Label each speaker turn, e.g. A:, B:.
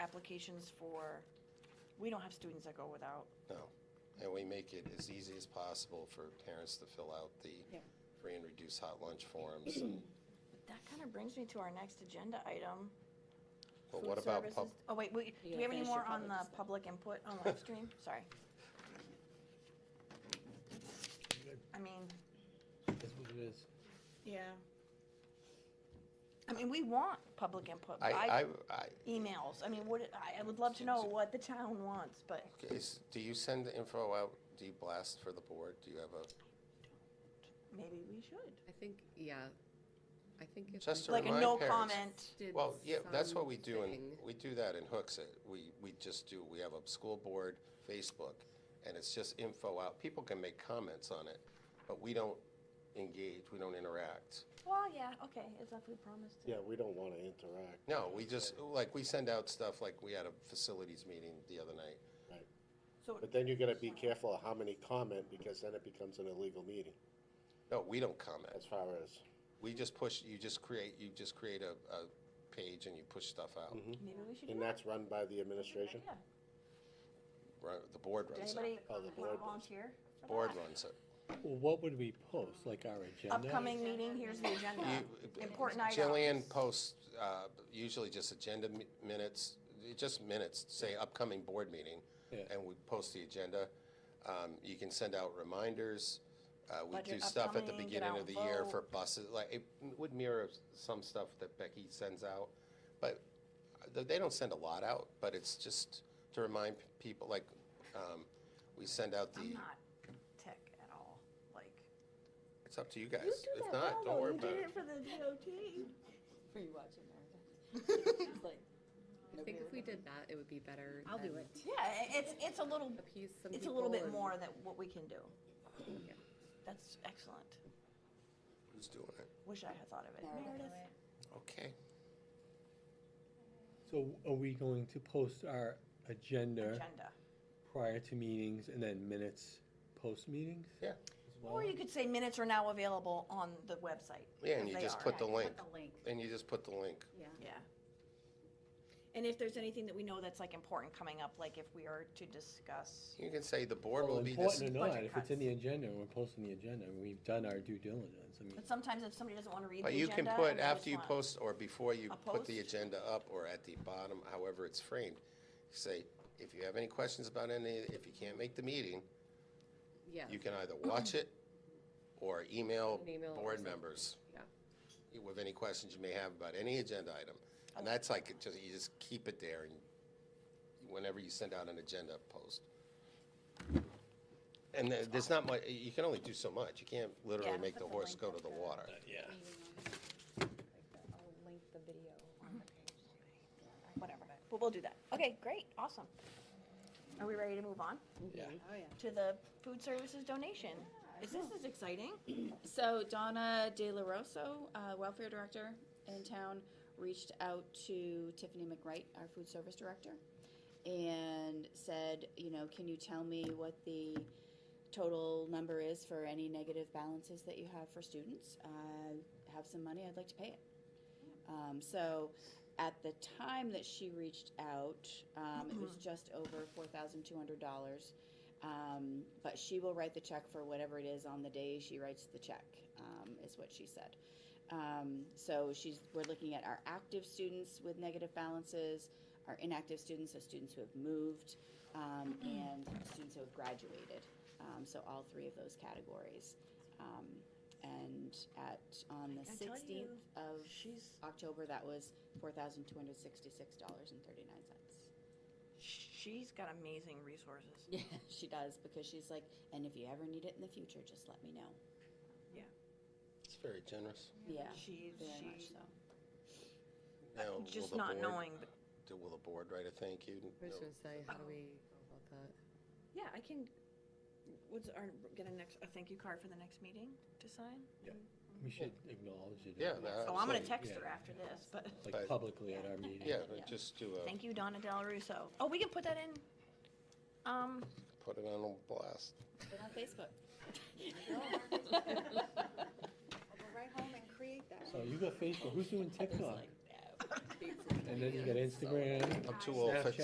A: applications for, we don't have students that go without.
B: No. And we make it as easy as possible for parents to fill out the
C: Yep.
B: free and reduced hot lunch forms.
A: That kind of brings me to our next agenda item.
B: But
A: food
B: what about pub,
A: services- Oh, wait, we- do
C: You
A: we have any
C: finished your
A: more on
C: public
A: the
C: display.
A: public input on live stream? Sorry. I mean,
D: That's what it is.
A: yeah. I mean, we want public input, but I,
B: I, I, I,
A: emails, I mean, what, I, I would love to know what the town wants, but
B: is, do you send the info out, do you blast for the board? Do you have a,
A: maybe we should.
E: I think, yeah, I think if.
B: Just
E: we
B: to
A: Like a
B: remind
A: no
B: parents.
A: comment,
E: did
B: well, yeah, that's what we do in,
E: something-
B: we do that in Hooks. Uh, We, we just do, we have a school board Facebook and it's just info out. People can make comments on it, but we don't engage, we don't interact.
A: well, yeah, okay, it's if we promised it.
F: Yeah, we don't want to interact.
B: No, we just, like, we send out stuff, like, we had a facilities meeting the other night.
F: Right.
A: So,
F: But then you gotta be careful of how many comment, because then it becomes an illegal meeting,
B: No, we don't comment.
F: as far as,
B: We just push, you just create, you just create a, a page and you push stuff out.
D: Mm.
A: maybe we should do
F: and
A: that.
F: that's run by the administration?
A: Yeah.
B: Run- The board
A: Did
B: runs it.
A: anybody
F: Oh, the
A: wanna
F: board
A: volunteer? for
B: Board
A: that?
B: runs it.
D: Well, what would we post, like our agenda?
A: Upcoming meeting, here's the agenda, important items.
B: uh, Jillian posts, uh, usually just agenda mi- minutes, just minutes, say upcoming board meeting,
D: Yeah.
B: and we post the agenda. Um, you can send out reminders. Uh, we do
A: Budget
B: stuff at the
A: upcoming, get
B: beginning
A: out
B: of the
A: and
B: year
A: vote.
B: for buses, like, it would mirror some stuff that Becky sends out. But th- they don't send a lot out, but it's just to remind people, like, um, we send out
A: I'm
B: the,
A: not tech at all, like.
B: it's up to you guys. If not, don't worry about it.
A: for the DOT.
C: Are you watching Meredith?
E: I think if we did that, it would be better.
C: I'll do
E: than
C: it.
A: Yeah, i- it's, it's a little,
E: Appease some people.
A: it's a little bit
E: and-
A: more than what we can do.
E: Yeah.
A: That's excellent.
B: Who's doing it?
A: Wish I had thought of it. Meredith?
B: Okay.
D: So are we going to post our agenda
A: Agenda.
D: prior to meetings and then minutes post meetings?
B: Yeah.
D: as
A: Or
D: well?
A: you could say minutes are now available on the website.
B: Yeah,
A: because
B: and you
A: they
B: just
A: are.
B: put the link.
C: The link,
B: And you just put the link.
C: yeah.
A: Yeah. And if there's anything that we know that's like important coming up, like if we are to discuss,
B: You can say the board
D: Well,
B: will be this.
D: important or not,
A: Budget
D: if it's in
A: cuts.
D: the agenda, we're posting the agenda, and we've done our due diligence, I mean,
A: but sometimes if somebody doesn't want to read the
B: But you
A: agenda.
B: can put,
A: and they
B: after
A: just
B: you
A: want-
B: post or before you
A: A
B: put the
A: post?
B: agenda up or at the bottom, however it's framed, say, if you have any questions about any, if you can't make the meeting,
E: Yeah,
B: you can either watch it or email
E: An email or
B: board
E: something.
B: members
E: yeah.
B: with any questions you may have about any agenda item. And that's like, it just, you just keep it there and whenever you send out an agenda post. And there- there's not much, you can only do so much. You can't literally
A: Yeah,
B: make the
A: put the
B: horse
A: link
B: go
A: up
B: to the
A: there.
B: water.
C: I'll link the video on the page.
A: whatever. But we'll do that. Okay, great, awesome. Are we ready to move on
D: yeah.
C: Oh, yeah.
A: to the food services donation? Is this is exciting?
G: So Donna De La Rosso, uh, welfare director in town, reached out to Tiffany McWright, our food service director, and said, you know, can you tell me what the total number is for any negative balances that you have for students? I have some money, I'd like to pay it. Um, so at the time that she reached out, um, it
A: Uh-huh.
G: was just over four thousand two hundred dollars. Um, but she will write the check for whatever it is on the day she writes the check, um, is what she said. Um, so she's, we're looking at our active students with negative balances, our inactive students, so students who have moved, um,
A: Mm-hmm.
G: and students who have graduated. Um, so all three of those categories. Um, and at, on the
A: I tell
G: sixteenth of
A: She's,
G: October, that was four thousand two hundred sixty-six dollars and thirty-nine cents.
A: she's got amazing resources.
G: Yeah, she does because she's like, and if you ever need it in the future, just let me know.
B: It's very generous.
G: Yeah,
A: She's,
G: very much
A: she's
G: so.
B: Now, will
A: just
B: the
A: not
B: board-
A: knowing, but,
B: Do- Will the board write a thank you?
E: I was
B: No.
E: gonna say, how do we go about that?
A: yeah, I can, what's our, get a next, a thank you card for the next meeting to sign?
D: We should acknowledge it.
B: Yeah, that-
A: Oh, I'm gonna text
B: Absolutely,
D: yeah. Uh,
A: her after this, but,
D: Like publicly at our meeting.
B: Yeah, but just do a,
A: thank you, Donna Del Russo. Oh, we can put that in, um,
B: put it on blast.
G: But on Facebook.
D: So you got Facebook, who's doing TikTok? and then you got Instagram.
G: I'm too old for
D: Snapchat.